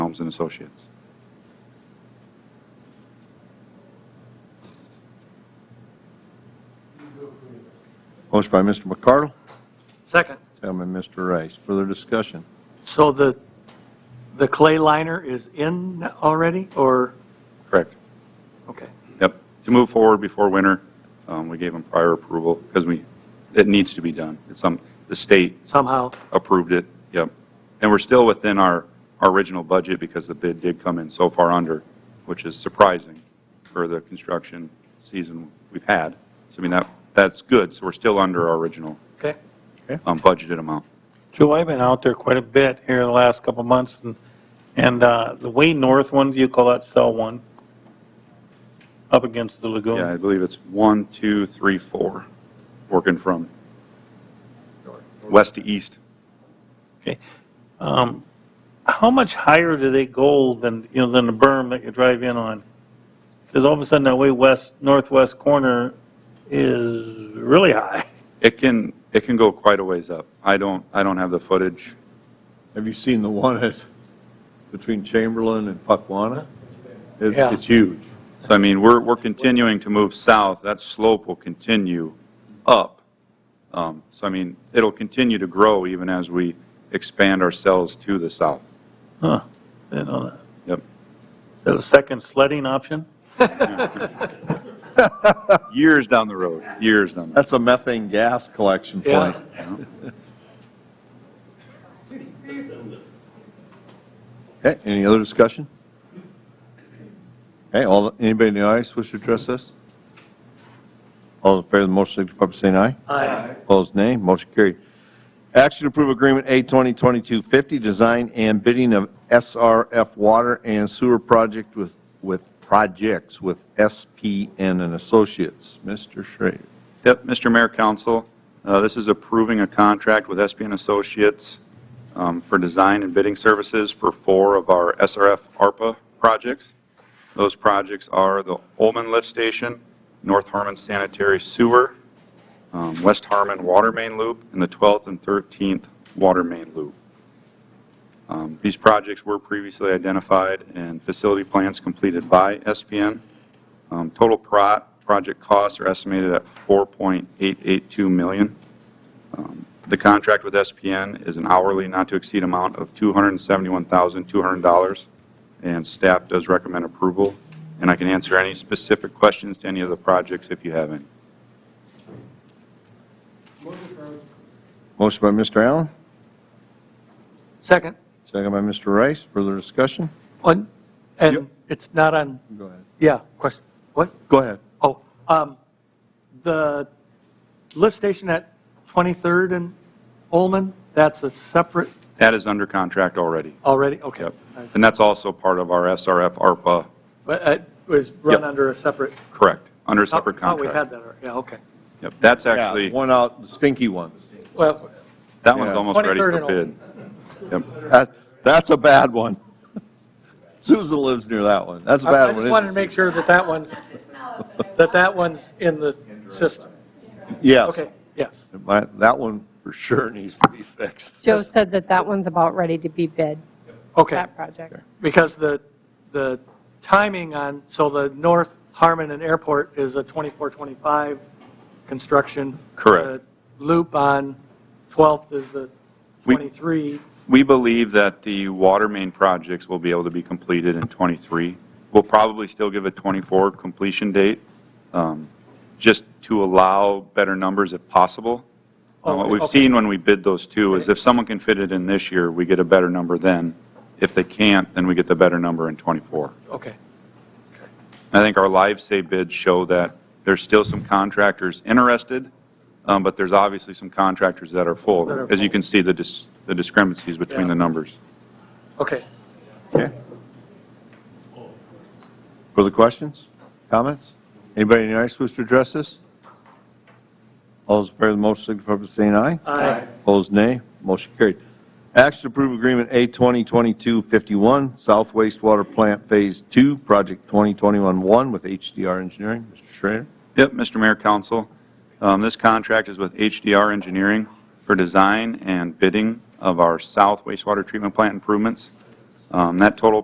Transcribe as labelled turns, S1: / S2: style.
S1: Helms and Associates.
S2: Motion by Mr. McCardle,
S3: Second.
S2: second by Mr. Rice. Further discussion?
S3: So the, the clay liner is in already, or,
S1: Correct.
S3: okay.
S1: Yep. To move forward before winter, um, we gave them prior approval because we, it needs to be done. It's some, the state
S3: somehow.
S1: approved it, yep. And we're still within our, our original budget because the bid did come in so far under, which is surprising for the construction season we've had. So I mean, that, that's good, so we're still under our original
S3: Okay.
S1: um, budgeted amount.
S4: Joe, I've been out there quite a bit here the last couple of months, and, and uh, the way north one, do you call that cell one? Up against the
S1: Yeah, I
S4: lagoon.
S1: believe it's one, two, three, four, working from west to east.
S4: Um, How much higher do they go than, you know, than the berm that you drive in on? Because all of a sudden, that way west, northwest corner is really high.
S1: It can, it can go quite a ways up. I don't, I don't have the footage.
S2: Have you seen the one at, between Chamberlain and Puckwana? It's,
S3: Yeah.
S2: it's huge.
S1: So I mean, we're, we're continuing to move south. That slope will continue up. Um, So I mean, it'll continue to grow even as we expand ourselves to the south.
S4: Huh, Didn't know that.
S1: Yep.
S4: Is that a second sledding option?
S1: Years down the road, years down. the road.
S2: That's a methane gas collection
S3: Yeah.
S2: plant. Okay, any other discussion? Okay, all, anybody in the audience wish to address this? All in favor of the motion, signify by saying aye.
S3: Aye.
S2: Opposed, nay. Motion carried. Action to approve Agreement A 2022-50, Design and Bidding of SRF Water and Sewer Project with, with projects with SPN and Associates. Mr. Schrader.
S1: Yep, Mr. Mayor, Council, uh, this is approving a contract with SPN Associates um, for design and bidding services for four of our SRF ARPA projects. Those projects are the Olman Lift Station, North Harmon Sanitary Sewer, um, West Harmon Water Main Loop, and the 12th and 13th Water Main Loop. Um, These projects were previously identified and facility plans completed by SPN. Um, Total pro- project costs are estimated at 4.882 million. Um, The contract with SPN is an hourly not-to-exceed amount of $271,200, and staff does recommend approval. And I can answer any specific questions to any of the projects if you have any.
S2: Motion by Mr. Allen,
S3: Second.
S2: second by Mr. Rice. Further discussion?
S3: On,
S2: Yep.
S3: and it's not on,
S2: Go ahead.
S3: yeah, question, what?
S2: Go ahead.
S3: Oh, um, the lift station at 23rd and Olman, that's a separate
S1: That is under contract already.
S3: already? Okay.
S1: Yep. And that's also part of our SRF ARPA,
S3: But it was run
S1: Yep.
S3: under a separate?
S1: correct, under a separate
S3: Thought- Thought we Oh,
S1: contract.
S3: had that, already. yeah, okay.
S1: Yep, That's
S2: Yeah,
S1: actually,
S2: One out, the stinky one.
S3: Well,
S1: that one's
S2: yeah.
S1: almost ready
S3: 23rd
S1: for
S3: and
S1: bid. Yep.
S2: That, that's a bad one. Susan lives near that one. That's a
S3: I I
S2: bad one.
S3: just
S2: isn't
S3: wanted to
S2: it,
S3: make sure that that one's, that that one's in the system.
S2: Susan? Yes.
S3: Okay, yes.
S2: My- That one for sure needs to be fixed.
S5: Joe said that that one's about ready to be bid,
S3: Okay,
S5: that project.
S3: because the, the timing on, so the North Harmon and Airport is a 24-25 construction.
S1: Correct.
S3: The Loop on 12th is a
S1: We-
S3: 23.
S1: We believe that the water main projects will be able to be completed in '23. We'll probably still give a '24 completion date, um, just to allow better numbers if possible. Uh, What
S3: Okay,
S1: we've
S3: Oh, okay.
S1: seen when we bid those two is if someone can fit it in this year, we get a better number then. If they can't, then we get the better number in '24.
S3: Okay,
S1: I think our live say bids show that there's still some contractors interested, um, but there's obviously some contractors that are
S3: That are
S1: full, as you
S3: full.
S1: can see the dis- the discrepancies between
S3: Yeah.
S1: the numbers.
S3: okay.
S2: Okay. Further questions, comments? Anybody in the audience wish to address this? All those in favor of the motion signify by saying aye.
S3: Aye.
S2: Opposed, nay. Motion carried. Action to approve Agreement A 2022-51, South Wastewater Plant Phase 2, Project 2021-1 with HDR Engineering. Mr. Schrader.
S1: Yep, Mr. Mayor, Council. Um, This contract is with HDR Engineering for design and bidding of our south wastewater treatment plant improvements. Um, That total